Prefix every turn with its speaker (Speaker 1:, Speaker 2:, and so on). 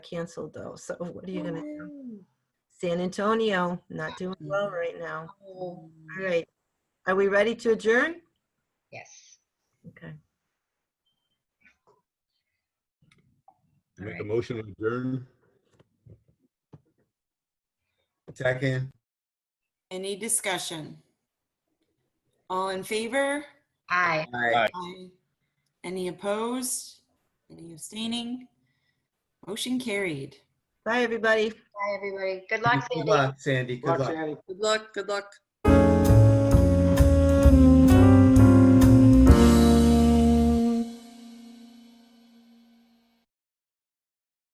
Speaker 1: canceled though. So what are you gonna?
Speaker 2: Ooh.
Speaker 1: San Antonio, not doing well right now.
Speaker 2: Oh,
Speaker 1: All right. Are we ready to adjourn?
Speaker 2: Yes.
Speaker 1: Okay.
Speaker 3: Make a
Speaker 2: Alright.
Speaker 3: motion to adjourn.
Speaker 4: Second.
Speaker 5: Any discussion? All in favor?
Speaker 2: Aye.
Speaker 4: Aye.
Speaker 5: Aye. Any opposed? Any abstaining? Motion carried.
Speaker 1: Bye, everybody.
Speaker 2: Bye, everybody. Good luck,
Speaker 4: Good
Speaker 2: Sandy.
Speaker 4: luck, Sandy. Good luck.
Speaker 6: Good luck, good luck.